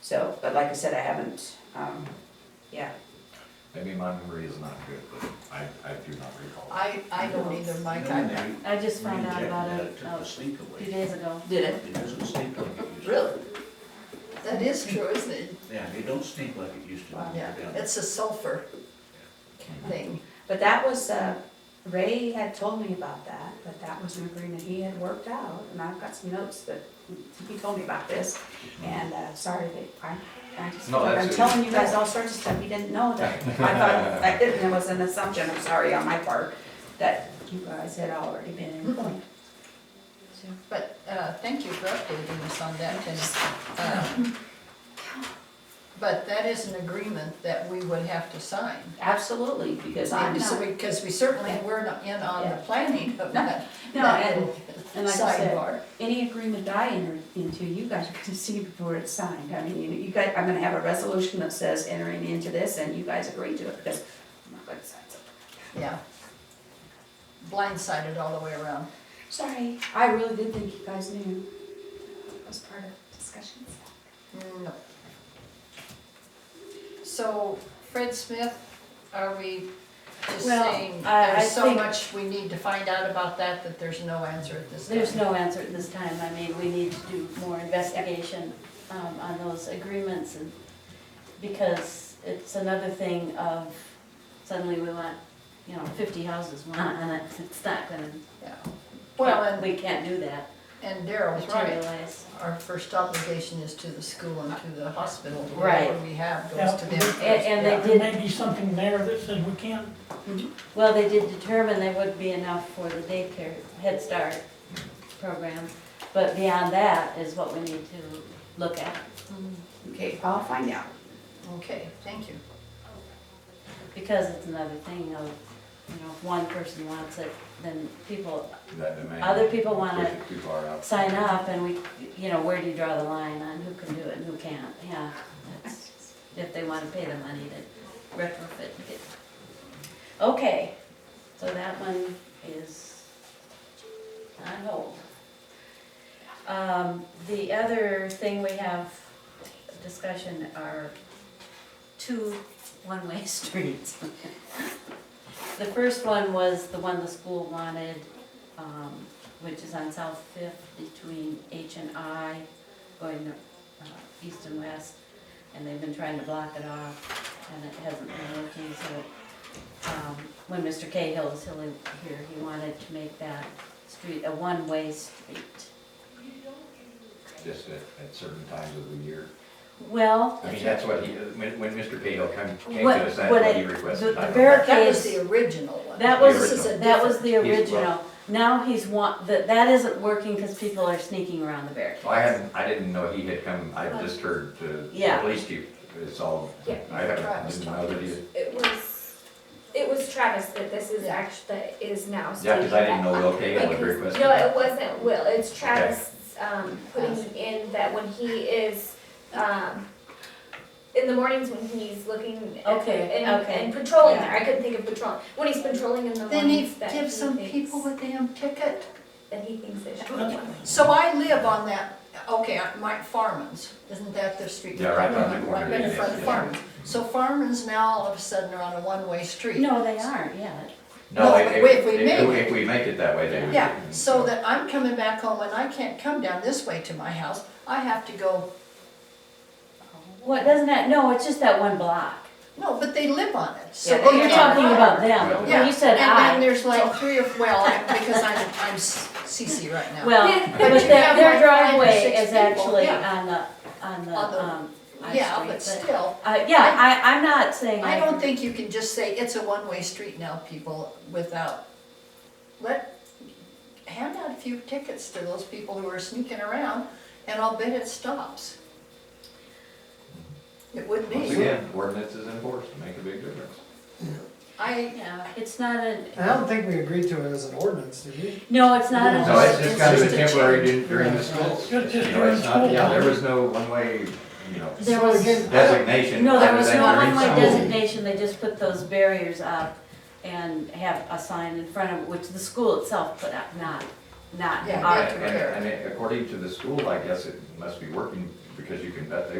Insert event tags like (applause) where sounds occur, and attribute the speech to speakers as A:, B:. A: So, but like I said, I haven't, um, yeah,
B: Maybe my memory is not good, but I, I do not recall.
C: I, I don't either, Mike, I,
D: I just found out about
E: Reinjected
D: it
E: that, Took the sleep
D: a few
E: away.
D: days ago.
A: did it?
E: It doesn't sneak like it used to.
C: really? That is true, isn't it?
E: Yeah, it don't sneak like it used to. when
C: Yeah,
E: you're down
C: it's a sulfur thing.
A: But that was, uh, Ray had told me about that, but that was an agreement he had worked out, and I've got some notes that he told me about this, and, uh, sorry that I, I just,
B: No, that's
A: I'm
B: it.
A: telling you guys all sorts of stuff, he didn't know that. I thought, I didn't, it was an assumption, I'm sorry on my part, that you guys had already been informed. So,
C: But, uh, thank you for updating us on that, and, uh, but that is an agreement that we would have to sign.
A: Absolutely, because I'm not.
C: Because we certainly were not in on the
A: Yeah.
C: planning of that,
A: No,
C: that
A: and- and like I said,
C: sidebar.
A: Any agreement I enter into, you guys are gonna (laughs) see before it's signed. I mean, you- you guys, I'm gonna have a resolution that says entering into this and you guys agree to it because I'm not gonna sign something.
C: Yeah. Blindsided all the way around.
A: Sorry, I really did think you guys knew. That was part of discussions.
C: No. So Fred Smith, are we just
D: Well,
C: saying,
D: I- I
C: there's so
D: think-
C: much we need to find out about that, that there's no answer at this time?
D: There's no answer at this time. I mean, we need to do more investigation um, on those agreements and because it's another thing of suddenly we want, you know, fifty houses want on it. (laughs) It's not gonna,
C: Yeah. Well, and,
D: we can't do that.
C: and Daryl's right,
D: Materialize.
C: our first obligation is to the school and to the hospital.
D: Right.
C: Whatever we have
F: Yeah.
C: goes to them first.
D: And- and they
C: yeah.
D: did-
F: There may be something there that says we can't,
D: Well, they did determine there would be enough for the daycare Head Start program, but beyond that is what we need to look at.
A: Okay, I'll find out.
C: Okay, thank you.
D: Because it's another thing of, you know, if one person wants it, then people
B: That it may-
D: Other people wanna
B: push it Too far out.
D: sign up and we, you know, where do you draw the line on who can do it and who can't? Yeah, that's, if they wanna pay the money to retrofit and get. Okay, so that one is on hold. Um, the other thing we have discussion are two one-way (laughs) streets. The first one was the one the school wanted, um, which is on South Fifth between H and I, going uh, east and west, and they've been trying to block it off, and it hasn't been working, so, um, when Mr. Cahill was hilly- here, he wanted to make that street a one-way street.
B: Just at, at certain times of the year.
D: Well,
B: I mean, that's what he, when, when Mr. Cahill come- came
D: What-
B: to us, that's
D: what
B: what he
D: it-
B: requested. I
D: the- the
B: don't know.
D: very-
C: That was
D: Case-
C: the original one.
D: that
B: The
D: was,
B: original.
D: that was the
B: He's- well-
D: original. Now he's want, that, that isn't working because people are sneaking around the barricades.
B: Well, I hadn't, I didn't know he had come, I just heard the the
D: Uh, Yeah.
B: police chief, it's all,
G: Yeah.
B: I haven't,
C: Travis
B: didn't know
C: talked
B: that
C: to
B: he.
C: us.
G: It was, it was Travis that this is
C: Yeah.
G: actually, that is now.
B: Yeah, cause I didn't know Will
G: stating
B: Cahill
G: that-
B: had requested.
G: No,
B: that.
G: it wasn't Will, it's Travis, um, putting in that when he is, um, in the mornings when he's looking. at-
D: Okay,
G: and-
D: okay.
G: And patrolling
D: Yeah.
G: there, I couldn't think of patrol, when he's patrolling in the
C: Then he
G: mornings that he
C: gives some
G: thinks-
C: people with him ticket.
G: That he thinks they should.
F: Okay.
C: So I live on that, okay, Mike Farman's, isn't that the street?
B: Yeah, right on the corner,
C: Right in front of
B: yeah.
C: Farman's. So Farman's now all of a sudden are on a one-way street.
D: No, they aren't, yeah.
B: No,
C: No,
B: if,
C: if we- if
B: if,
C: we make
B: if we make it that way, they would.
C: Yeah, so that I'm coming back home and I can't come down this way to my house. I have to go,
D: What, doesn't that, no, it's just that one block.
C: no, but they live on it. So
A: Yeah,
C: they
D: You're
C: can't-
D: talking about them,
C: Yeah,
D: when you said
C: And then
D: I,
C: there's like three of, well, I- because I'm, I'm s- CC right now.
D: well,
G: Yeah.
D: but
C: But you
D: their,
C: have
D: their
C: like five or
D: driveway
C: six
D: is
C: people,
D: actually
C: yeah.
D: on the, on the,
C: On the-
D: um, I
C: Yeah,
D: street,
C: but still.
D: Uh, yeah, I, I'm not saying.
C: I don't think you can just say it's a one-way street now, people, without, let, hand out a few tickets to those people who are sneaking around, and I'll bet it stops. It would
B: Once
C: be.
B: again, ordinance is enforced to make a big difference.
C: I,
D: Yeah, it's not a,
H: I don't think we agreed to it as an ordinance, did we?
D: no, it's not a.
B: No, it's just kind of a
C: It's just a
B: temporary
C: change.
B: during the
H: Right.
B: school.
F: It's just
B: You know,
F: during
B: it's not- Yeah,
F: school.
B: there was no one-way, you know,
D: There
H: So
D: was-
H: again, I don't-
B: designation.
D: No, there
B: other
D: was
B: than
D: no
B: during
D: one-way
B: school.
D: designation, they just put those barriers up and have a sign in front of it, which the school itself put up, not, not
C: Yeah,
D: our
C: yeah.
B: And, and- and according to the school, I guess it must be working because you can bet they